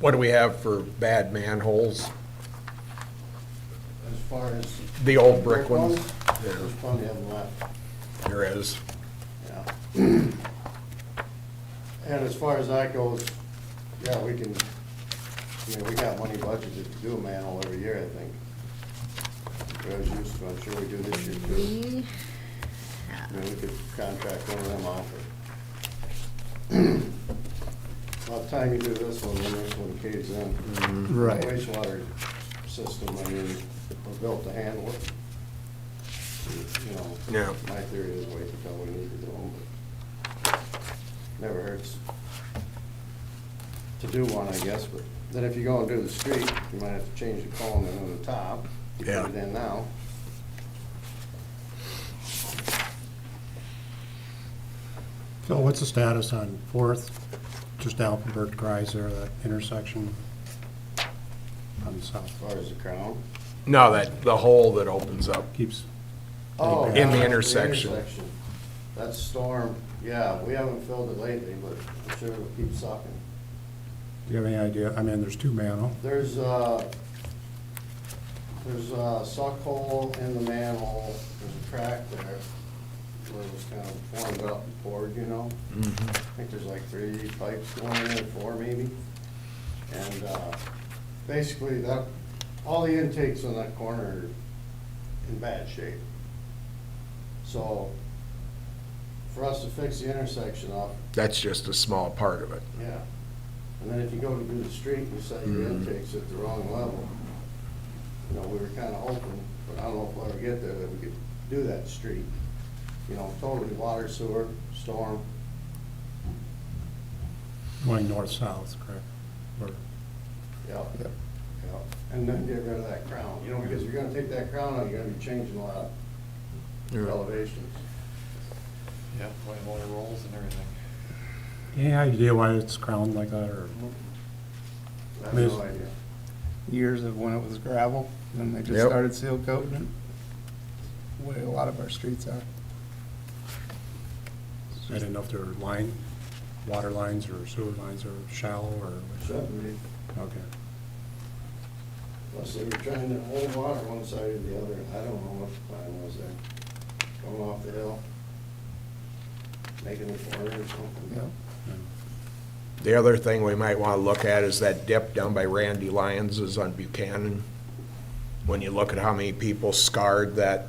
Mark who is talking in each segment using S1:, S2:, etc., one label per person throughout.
S1: What do we have for bad manholes?
S2: As far as.
S1: The old brick ones?
S2: There's plenty of them left,
S1: There is.
S2: yeah. And as far as that goes, yeah, we can, I mean, we got money budgeted to do a manhole every year, I think. As used to, I'm sure we do this year too.
S3: We
S2: I
S3: have,
S2: mean, we could contract one of them out. but- About time you do this one, the next one caves in.
S4: Right.
S2: Wastewater system, I mean, we're built to handle it. You know.
S1: Yeah.
S2: My theory is wait until we need to do them, but never hurts to do one, I guess, but then if you go and do the street, you might have to change the column in on the top. You
S1: Yeah.
S2: Put it in now.
S4: So what's the status on Fourth, just down from Bert Greiser, that intersection on the
S2: As
S4: south?
S2: far as the crown.
S1: No, that, the hole that opens up.
S4: Keeps,
S2: Oh,
S1: In
S2: yeah,
S1: the intersection.
S2: intersection. That's storm, yeah, we haven't filled it lately, but I'm sure it'll keep sucking.
S4: do you have any idea? I mean, there's two manhole.
S2: There's a, there's a suck hole in the manhole, there's a crack there where it was kind of formed up and poured, you know? I think there's like three pipes going in, there, four maybe. And uh, basically that, all the intakes on that corner are in bad shape. So for us to fix the intersection up,
S1: That's just a small part of it.
S2: yeah. And then if you go to do the street and you set your intakes at the wrong level, you know, we were kinda hoping, but I don't know if we'll ever get there, that we could do that street. You know, totally water, sewer, storm,
S4: going north-south, correct? Or-
S2: yep, yep. And then get rid of that crown, you know, because if you're gonna take that crown out, you're gonna be changing a lot of elevations.
S5: Yeah, white water rolls and everything.
S4: Any idea why it's crowned like that, or?
S2: I have no idea.
S6: years of when it was gravel, then they just
S1: Yep.
S6: started seal coating it. Way a lot of our streets are.
S4: I didn't know if there were line, water lines or sewer lines are shallow, or,
S2: Shouldn't be,
S4: okay.
S2: unless they were trying to hold water one side or the other, I don't know what the plan was there. Going off the hill, making the corner or something.
S6: Yep.
S1: The other thing we might want to look at is that dip down by Randy Lyons's on Buchanan. When you look at how many people scarred that,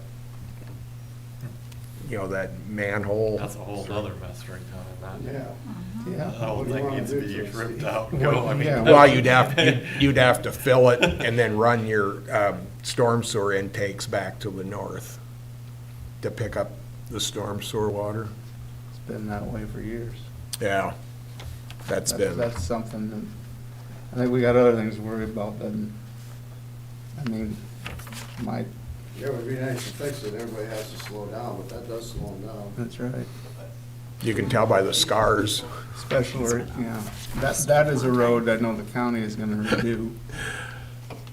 S1: you know, that manhole.
S5: That's a whole other mess right down in that.
S2: Yeah.
S5: The
S6: Yeah.
S5: whole
S2: What do you
S5: thing
S2: wanna
S5: needs
S2: do
S5: to be
S2: to the
S5: ripped
S2: city?
S5: out.
S6: Well,
S5: Go, I mean.
S6: yeah.
S1: Well, you'd have, you'd- you'd have to fill it and then run your um, storm sewer intakes back to the north to pick up the storm sewer water.
S6: It's been that way for years.
S1: Yeah, that's
S6: That's,
S1: been,
S6: that's something that, I think we got other things to worry about than, I mean, my,
S2: Yeah, it would be nice to fix it, everybody has to slow down, but that does slow them down.
S6: that's right.
S1: you can tell by the scars.
S6: Special, or- yeah. That, that is a road I know the county is gonna redo.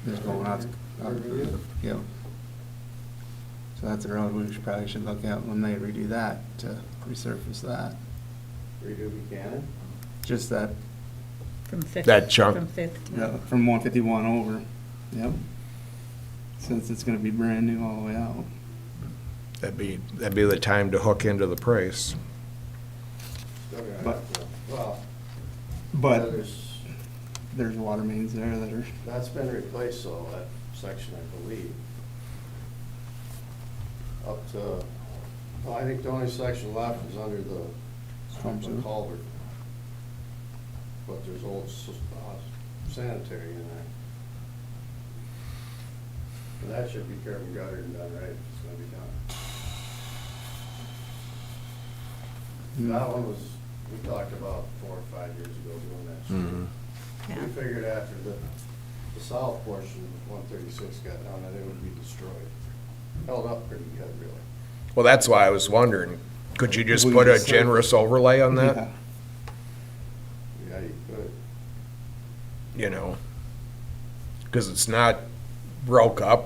S6: Is going out, out,
S2: Redo?
S6: yeah. So that's a road we should, probably should look at when they redo that, to resurface that.
S2: Redo Buchanan?
S6: Just that,
S3: From fifth.
S1: That chunk.
S3: From fifth. to-
S6: yeah, from one fifty-one over, yep. Since it's gonna be brand new all the way out.
S1: That'd be, that'd be the time to hook into the price.
S2: Still gonna
S6: But-
S2: have to- Well,
S6: But
S2: there's,
S6: there's water mains there that are,
S2: that's been replaced though, that section, I believe. Up to, well, I think the only section left is under the
S6: Storm
S2: the
S6: sewer.
S2: culvert. But there's old s- uh, sanitary in there. And that should be curb and gutted and done right, if it's gonna be done. That one was, we talked about four or five years ago doing that.
S1: Mm-hmm.
S2: street.
S3: Yeah.
S2: We figured after the, the south portion of one thirty-six got down, that it would be destroyed. Held up pretty good, really.
S1: Well, that's why I was wondering, could you just
S6: Would
S1: put
S6: you
S1: a
S6: say-
S1: generous overlay on
S6: Yeah.
S1: that?
S2: Yeah, you could.
S1: You know? Because it's not broke up